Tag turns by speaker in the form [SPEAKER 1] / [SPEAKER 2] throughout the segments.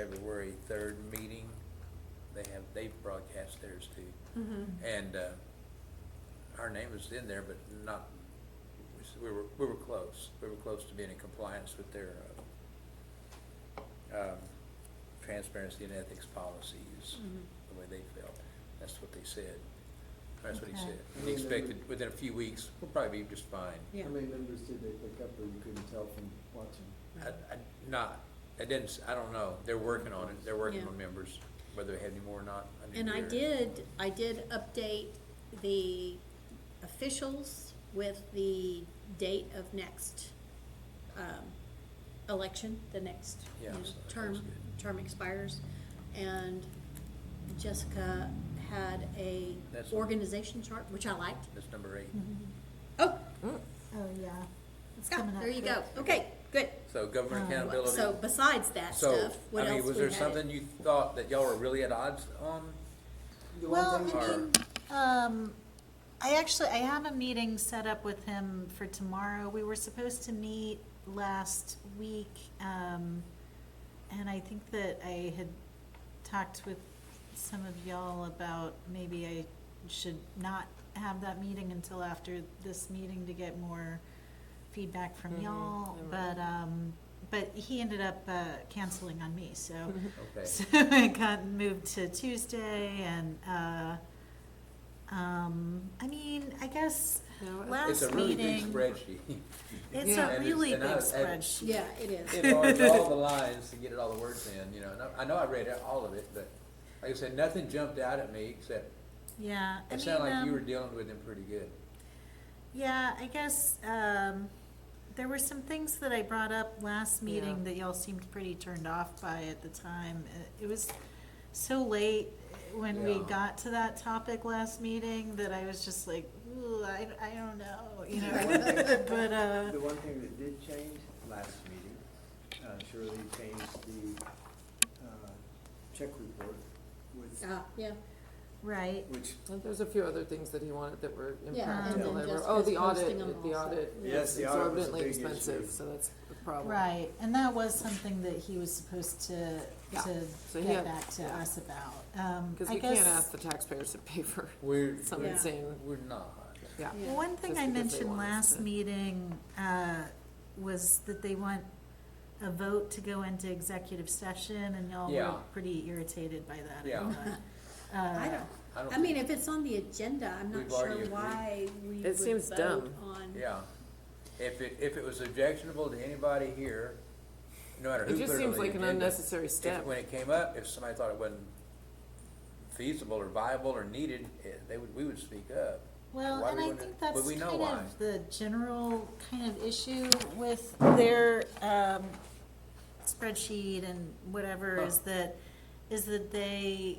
[SPEAKER 1] February third meeting. They have, they broadcast theirs too.
[SPEAKER 2] Mhm.
[SPEAKER 1] And, uh, our name was in there, but not, we were, we were close. We were close to being in compliance with their, uh, um, transparency and ethics policies,
[SPEAKER 2] Mhm.
[SPEAKER 1] the way they felt. That's what they said. That's what he
[SPEAKER 2] Okay.
[SPEAKER 1] said. He expected, within a few weeks, we'll probably be just fine.
[SPEAKER 2] Yeah.
[SPEAKER 3] How many members did they pick up, or you couldn't tell from watching?
[SPEAKER 1] I, I, not, I didn't, s- I don't know, they're working on it, they're working
[SPEAKER 2] Yeah.
[SPEAKER 1] on members, whether they have any more or not. didn't
[SPEAKER 2] And I
[SPEAKER 1] hear.
[SPEAKER 2] did, I did update the officials with the date of next, um, election, the next, you
[SPEAKER 1] Yeah,
[SPEAKER 2] know,
[SPEAKER 1] so that was
[SPEAKER 2] term,
[SPEAKER 1] good.
[SPEAKER 2] term expires. And Jessica had a
[SPEAKER 1] That's-
[SPEAKER 2] organization chart, which I liked.
[SPEAKER 1] That's number eight.
[SPEAKER 4] Mm-hmm.
[SPEAKER 2] Oh,
[SPEAKER 4] Oh, yeah. It's
[SPEAKER 2] Scott,
[SPEAKER 4] coming up
[SPEAKER 2] Ah, there you go,
[SPEAKER 4] quick.
[SPEAKER 2] okay, good.
[SPEAKER 1] So government
[SPEAKER 4] Um,
[SPEAKER 1] accountability.
[SPEAKER 2] So besides that
[SPEAKER 1] So,
[SPEAKER 2] stuff,
[SPEAKER 1] I
[SPEAKER 2] what
[SPEAKER 1] mean,
[SPEAKER 2] else
[SPEAKER 1] was
[SPEAKER 2] we
[SPEAKER 1] there
[SPEAKER 2] had?
[SPEAKER 1] something you thought that y'all were really at odds on?
[SPEAKER 3] The one
[SPEAKER 4] Well, I
[SPEAKER 3] thing-
[SPEAKER 1] Or-
[SPEAKER 4] mean, um, I actually, I have a meeting set up with him for tomorrow. We were supposed to meet last week, um, and I think that I had talked with some of y'all about maybe I should not have that meeting until after this meeting to get more feedback from
[SPEAKER 2] Mm-hmm.
[SPEAKER 5] Mhm,
[SPEAKER 4] y'all,
[SPEAKER 5] I
[SPEAKER 4] but,
[SPEAKER 5] remember.
[SPEAKER 4] um, but he ended up, uh, canceling on me, so.
[SPEAKER 1] Okay,
[SPEAKER 4] So it got moved to Tuesday and, uh, um, I mean, I guess
[SPEAKER 5] No, I-
[SPEAKER 4] last
[SPEAKER 1] it's a really big
[SPEAKER 4] meeting,
[SPEAKER 1] spreadsheet.
[SPEAKER 4] it's
[SPEAKER 5] Yeah.
[SPEAKER 4] a
[SPEAKER 1] And
[SPEAKER 4] really
[SPEAKER 1] it's-
[SPEAKER 4] big
[SPEAKER 1] and I- and-
[SPEAKER 4] spreadsheet.
[SPEAKER 2] Yeah, it is.
[SPEAKER 1] It enlarged all the lines to get it all the words in, you know, and I, I know I read it- all of it, but like I said, nothing jumped out at me except
[SPEAKER 4] Yeah, I
[SPEAKER 1] it
[SPEAKER 4] mean,
[SPEAKER 1] sounded like you were
[SPEAKER 4] um,
[SPEAKER 1] dealing with them pretty good.
[SPEAKER 4] yeah, I guess, um, there were some things that I brought up last meeting
[SPEAKER 5] Yeah.
[SPEAKER 4] that y'all seemed pretty turned off by at the time. Uh, It- It was so late when we
[SPEAKER 1] Yeah.
[SPEAKER 4] got to that topic last meeting that I was just like, ooh, I, I don't know, you know,
[SPEAKER 3] Right.
[SPEAKER 4] but, uh.
[SPEAKER 3] The one thing that did change last meeting, uh, Shirley changed the, uh, check report with,
[SPEAKER 4] Uh,
[SPEAKER 2] Ah, yeah.
[SPEAKER 4] Right.
[SPEAKER 3] which,
[SPEAKER 5] And There's a few other things that he wanted that were
[SPEAKER 2] Yeah,
[SPEAKER 3] and
[SPEAKER 5] impractical.
[SPEAKER 3] then
[SPEAKER 5] They were-
[SPEAKER 2] just
[SPEAKER 5] Oh, the
[SPEAKER 2] just posting
[SPEAKER 5] audit,
[SPEAKER 2] them
[SPEAKER 5] the
[SPEAKER 2] also.
[SPEAKER 5] audit
[SPEAKER 3] Yes,
[SPEAKER 5] is
[SPEAKER 3] the audit was a
[SPEAKER 5] exorbitantly
[SPEAKER 3] big issue.
[SPEAKER 5] expensive, so that's a problem.
[SPEAKER 4] Right, and that was something that he was supposed to,
[SPEAKER 5] Yeah,
[SPEAKER 4] to
[SPEAKER 5] so he
[SPEAKER 4] get
[SPEAKER 5] had-
[SPEAKER 4] back to
[SPEAKER 5] yeah.
[SPEAKER 4] us about. Um,
[SPEAKER 5] Because
[SPEAKER 4] I
[SPEAKER 5] we can't
[SPEAKER 4] guess
[SPEAKER 5] ask the taxpayers to pay for
[SPEAKER 1] We're,
[SPEAKER 5] some
[SPEAKER 2] Yeah.
[SPEAKER 5] insane,
[SPEAKER 1] we're not.
[SPEAKER 5] yeah.
[SPEAKER 2] Yeah.
[SPEAKER 4] One thing
[SPEAKER 5] just
[SPEAKER 4] I
[SPEAKER 5] because they
[SPEAKER 4] mentioned
[SPEAKER 5] want us
[SPEAKER 4] last
[SPEAKER 5] to-
[SPEAKER 4] meeting, uh, was that they want a vote to go into executive session and y'all were
[SPEAKER 1] Yeah.
[SPEAKER 4] pretty irritated by that. I
[SPEAKER 1] Yeah.
[SPEAKER 4] thought. Uh,
[SPEAKER 2] I don't,
[SPEAKER 1] I don't.
[SPEAKER 2] I mean, if it's on the agenda, I'm not
[SPEAKER 1] We've already
[SPEAKER 2] sure
[SPEAKER 1] agreed.
[SPEAKER 2] why we
[SPEAKER 5] It
[SPEAKER 2] would
[SPEAKER 5] seems
[SPEAKER 2] vote
[SPEAKER 5] dumb.
[SPEAKER 2] on.
[SPEAKER 1] Yeah, if it, if it was objectionable to anybody here, no matter who
[SPEAKER 5] It
[SPEAKER 1] put it on the
[SPEAKER 5] just
[SPEAKER 1] agenda.
[SPEAKER 5] seems like an unnecessary
[SPEAKER 1] if-
[SPEAKER 5] step.
[SPEAKER 1] When it came up, if somebody thought it wasn't feasible or viable or needed, eh, they would, we would speak up.
[SPEAKER 4] Well,
[SPEAKER 1] Why
[SPEAKER 4] and
[SPEAKER 1] we
[SPEAKER 4] I
[SPEAKER 1] wouldn't-
[SPEAKER 4] think that's
[SPEAKER 1] but we
[SPEAKER 4] kind
[SPEAKER 1] know why.
[SPEAKER 4] of the general kind of issue with their um, spreadsheet and whatever is
[SPEAKER 1] Huh.
[SPEAKER 4] that, is that they,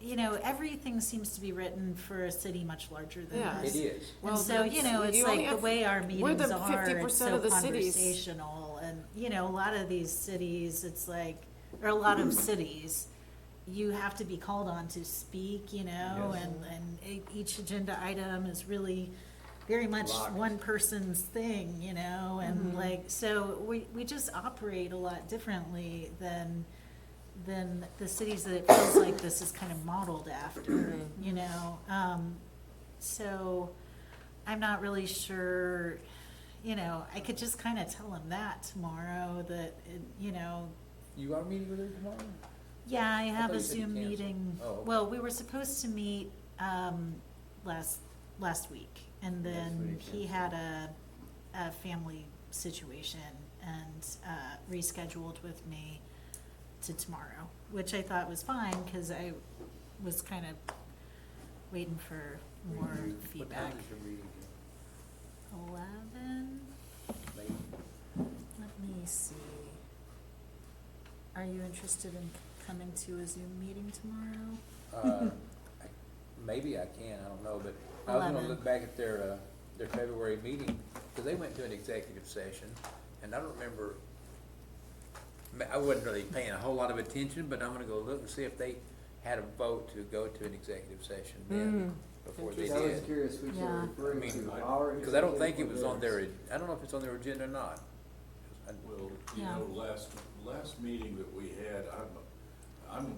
[SPEAKER 4] you know, everything seems to be written for a city much larger than
[SPEAKER 5] Yeah.
[SPEAKER 4] us.
[SPEAKER 1] It is,
[SPEAKER 4] And
[SPEAKER 5] Well,
[SPEAKER 4] so,
[SPEAKER 5] that's-
[SPEAKER 4] you know, it's
[SPEAKER 5] you only
[SPEAKER 4] like the
[SPEAKER 5] have-
[SPEAKER 4] way our
[SPEAKER 5] we're the
[SPEAKER 4] meetings are, it's
[SPEAKER 5] 50%
[SPEAKER 4] so
[SPEAKER 5] of the cities.
[SPEAKER 4] conversational. And, you know, a lot of these cities, it's like, or a lot of cities, you have to be called on to speak, you know,
[SPEAKER 3] Yes.
[SPEAKER 4] and, and e- each agenda item is really very much
[SPEAKER 1] Locked.
[SPEAKER 4] one person's thing, you know, and
[SPEAKER 5] Mhm.
[SPEAKER 4] like, so we, we just operate a lot differently than, than the cities that it feels like this is kind of modeled after, you know? Um, so I'm not really sure, you know, I could just kind of tell him that tomorrow that, it- you know,
[SPEAKER 1] you are meeting with her tomorrow?
[SPEAKER 4] yeah, I
[SPEAKER 1] I
[SPEAKER 4] have
[SPEAKER 1] thought
[SPEAKER 4] a
[SPEAKER 1] you said you
[SPEAKER 4] Zoom
[SPEAKER 1] canceled.
[SPEAKER 4] meeting.
[SPEAKER 1] Oh, okay.
[SPEAKER 4] Well, we were supposed to meet, um, last, last week, and
[SPEAKER 3] That's what
[SPEAKER 4] then
[SPEAKER 3] he
[SPEAKER 4] he had a, a family situation and, uh, rescheduled with me to tomorrow, which I thought was fine, cause I was kind of waiting for more
[SPEAKER 1] What time
[SPEAKER 4] feedback.
[SPEAKER 1] is your meeting?
[SPEAKER 4] Eleven,
[SPEAKER 1] Late?
[SPEAKER 4] let me see. Are you interested in coming to a Zoom meeting tomorrow?
[SPEAKER 1] Uh, I- Maybe I can, I don't know, but I was gonna
[SPEAKER 4] Eleven.
[SPEAKER 1] look back at their, uh, their February meeting, because they went to an executive session, and I don't remember, ma- I wasn't really paying a whole lot of attention, but I'm gonna go look and see if they had a vote to go to an executive session then, before they
[SPEAKER 3] I was
[SPEAKER 1] did.
[SPEAKER 3] curious which
[SPEAKER 4] Yeah.
[SPEAKER 3] you're referring
[SPEAKER 1] I mean,
[SPEAKER 3] to, our.
[SPEAKER 1] Because I don't think it
[SPEAKER 3] executive
[SPEAKER 1] was on
[SPEAKER 3] orders.
[SPEAKER 1] their, ag- I don't know if it's on their agenda or not. 'Cause I-
[SPEAKER 6] Well, you
[SPEAKER 4] Yeah.
[SPEAKER 6] know, last, last meeting that we had, I'm